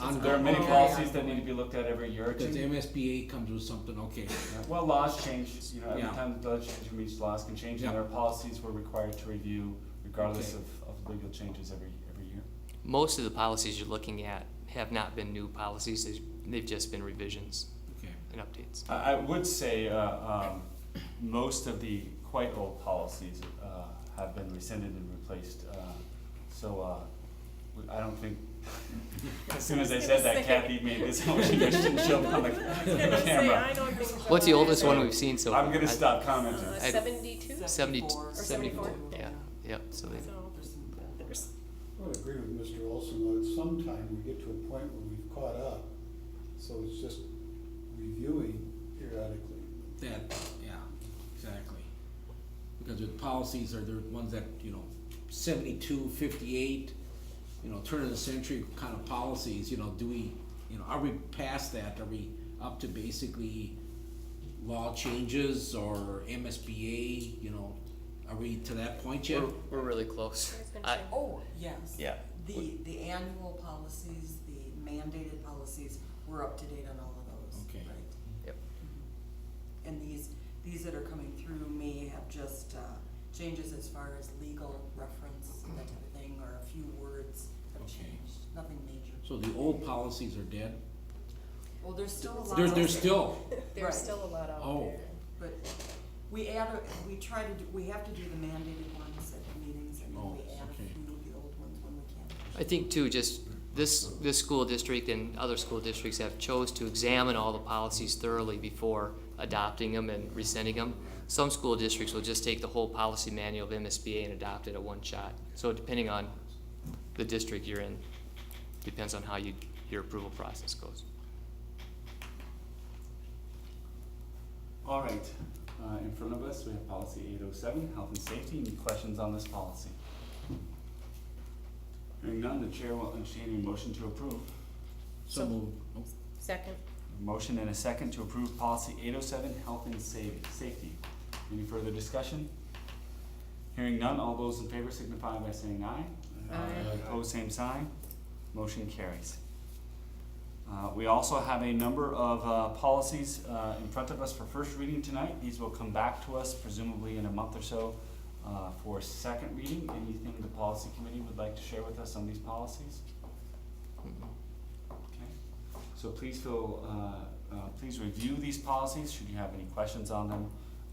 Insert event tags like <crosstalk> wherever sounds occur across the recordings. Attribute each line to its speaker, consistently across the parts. Speaker 1: ongoing.
Speaker 2: There are many
Speaker 3: Yeah.
Speaker 2: policies that need to be looked at every year or
Speaker 1: Because
Speaker 2: two.
Speaker 1: MSBA comes with something, okay,
Speaker 2: Well, laws change, you know, every
Speaker 1: Yeah.
Speaker 2: time the legislature meets, laws can change, and
Speaker 1: Yeah.
Speaker 2: our policies we're required to review regardless
Speaker 1: Okay.
Speaker 2: of, of legal changes every, every year.
Speaker 3: Most of the policies you're looking at have not been new policies, they've- they've just been revisions
Speaker 1: okay,
Speaker 3: and updates.
Speaker 2: I, I would say, uh, um, most of the quite old policies, uh, have been rescinded and replaced, uh, so, uh, we- I don't think, <laughs> as soon as <laughs> I said that, Kathy made this motion, <laughs> I shouldn't show
Speaker 4: <laughs>
Speaker 2: up on the the camera.
Speaker 3: What's the oldest one we've seen so far?
Speaker 2: I'm gonna stop commenting.
Speaker 3: I-
Speaker 4: Uh, Seventy-two,
Speaker 3: Seventy,
Speaker 4: Or
Speaker 3: seventy-four,
Speaker 4: 74,
Speaker 3: yeah, yep, so they,
Speaker 4: so there's,
Speaker 5: I would agree with Mr. Olson, though, at some time we get to a point where we've caught up, so it's just reviewing periodically.
Speaker 1: that, yeah, exactly. Because with policies are, there ones that, you know, seventy-two, fifty-eight, you know, turn of the century kind of policies, you know, do we, you know, are we past that, are we up to basically law changes or MSBA, you know, are we to that point yet?
Speaker 3: we're, we're really close.
Speaker 4: there's been
Speaker 3: I-
Speaker 4: change.
Speaker 6: Oh, yes.
Speaker 3: Yeah.
Speaker 6: The, the annual policies, the mandated policies, we're up to date on all of those,
Speaker 1: Okay.
Speaker 6: right?
Speaker 3: Yep.
Speaker 6: And these, these that are coming through may have just, uh, changes as far as legal reference, that type of thing, or a few words have
Speaker 1: Okay.
Speaker 6: changed, nothing major.
Speaker 1: So the old policies are dead?
Speaker 6: Well, there's still a lot.
Speaker 1: There,
Speaker 6: of-
Speaker 1: there's still,
Speaker 6: Right.
Speaker 4: there's still a lot out there.
Speaker 1: Oh.
Speaker 6: But we add, a- we try to, do we have to do the mandated ones at the meetings, and then
Speaker 1: Oh,
Speaker 6: we add a
Speaker 1: okay.
Speaker 6: few of the old ones when we can.
Speaker 3: I think too, just this, this school district and other school districts have chose to examine all the policies thoroughly before adopting them and rescinding them. Some school districts will just take the whole policy manual of MSBA and adopt it at one shot. So depending on the district you're in, depends on how you, your approval process goes.
Speaker 2: All right, uh, in front of us, we have policy eight oh seven, health and safety, any questions on this policy? Hearing none, the chair will entertain a motion to approve.
Speaker 1: so moved, Oh,
Speaker 4: Second,
Speaker 2: A Motion and a second to approve policy eight oh seven, health and sa- safety. Any further discussion? Hearing none, all those in favor signify by saying aye.
Speaker 4: Aye.
Speaker 2: Opposed, same sign. Motion carries. Uh, we also have a number of, uh, policies, uh, in front of us for first reading tonight. These will come back to us presumably in a month or so, uh, for second reading. Anything the policy committee would like to share with us on these policies? Okay, so please feel, uh, uh, please review these policies, should you have any questions on them,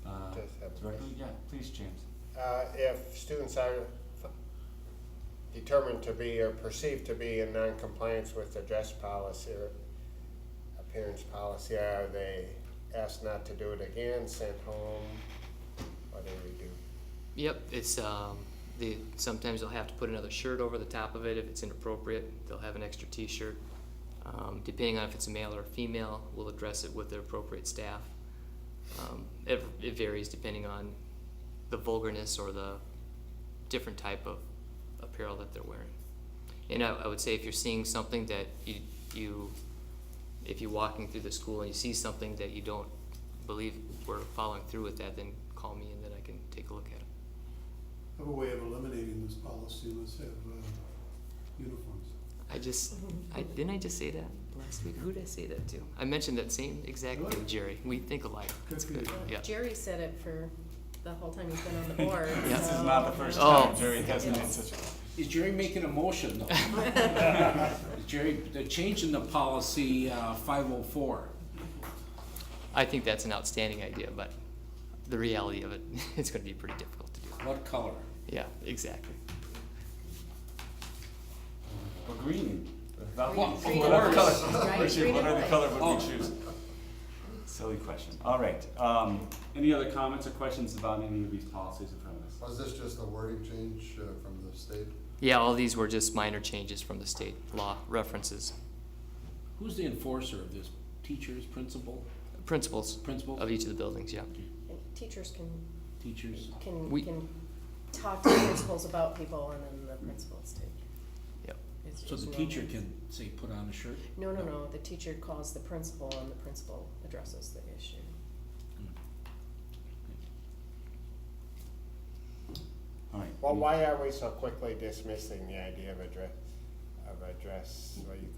Speaker 2: uh,
Speaker 7: Does have a
Speaker 2: directly, yeah, please, James.
Speaker 7: Uh, if students are f- determined to be or perceived to be in noncompliance with the dress policy or appearance policy, are they asked not to do it again, sent home? What do we do?
Speaker 3: Yep, it's, um, the, sometimes they'll have to put another shirt over the top of it if it's inappropriate, they'll have an extra t-shirt. Um, depending on if it's a male or a female, we'll address it with the appropriate staff. Um, it, it varies depending on the vulgarness or the different type of apparel that they're wearing. And I, I would say if you're seeing something that you, you, if you're walking through the school and you see something that you don't believe we're following through with that, then call me and then I can take a look at it.
Speaker 5: Have a way of eliminating this policy, let's have, uh, uniforms.
Speaker 3: I just, I, didn't I just say that last week? Who did I say that to? I mentioned that same exact
Speaker 5: Really?
Speaker 3: thing, Jerry. We think alike. That's
Speaker 5: Good for
Speaker 3: good.
Speaker 5: you.
Speaker 3: Yeah.
Speaker 4: Jerry said it for the whole time he's been on the board,
Speaker 3: <laughs> Yeah.
Speaker 2: This
Speaker 4: so-
Speaker 2: is not the first
Speaker 3: Oh.
Speaker 2: time Jerry has made such a.
Speaker 1: Is Jerry making a motion though? Jerry, they're changing the policy, uh, five oh four.
Speaker 3: I think that's an outstanding idea, but the reality of it, <laughs> it's going to be pretty difficult to do.
Speaker 1: What color?
Speaker 3: Yeah, exactly.
Speaker 2: Well, green. Without-
Speaker 1: Green, green,
Speaker 2: Whatever
Speaker 1: of
Speaker 2: color, <laughs>
Speaker 1: course.
Speaker 4: Right,
Speaker 2: Richard,
Speaker 4: green
Speaker 2: what
Speaker 4: and
Speaker 2: other
Speaker 4: white.
Speaker 2: color would we
Speaker 1: Oh.
Speaker 2: choose? Silly question. All right, um, any other comments or questions about any of these policies in front of us?
Speaker 8: Was this just a wording change uh, from the state?
Speaker 3: Yeah, all these were just minor changes from the state law references,
Speaker 1: Who's the enforcer of this? Teachers, principal,
Speaker 3: principles
Speaker 1: principal,
Speaker 3: of each of the buildings, yeah.
Speaker 4: And Teachers can,
Speaker 1: teachers?
Speaker 4: can,
Speaker 3: We-
Speaker 4: can talk to principals about people and then the principals take.
Speaker 3: Yep.
Speaker 4: It's
Speaker 1: So the
Speaker 4: just
Speaker 1: teacher
Speaker 4: normal.
Speaker 1: can say, put on a shirt?
Speaker 4: No, no, no, the teacher calls the principal and the principal addresses the issue.
Speaker 2: All right.
Speaker 7: Well, why are we so quickly dismissing the idea of a dress, of a dress, what do you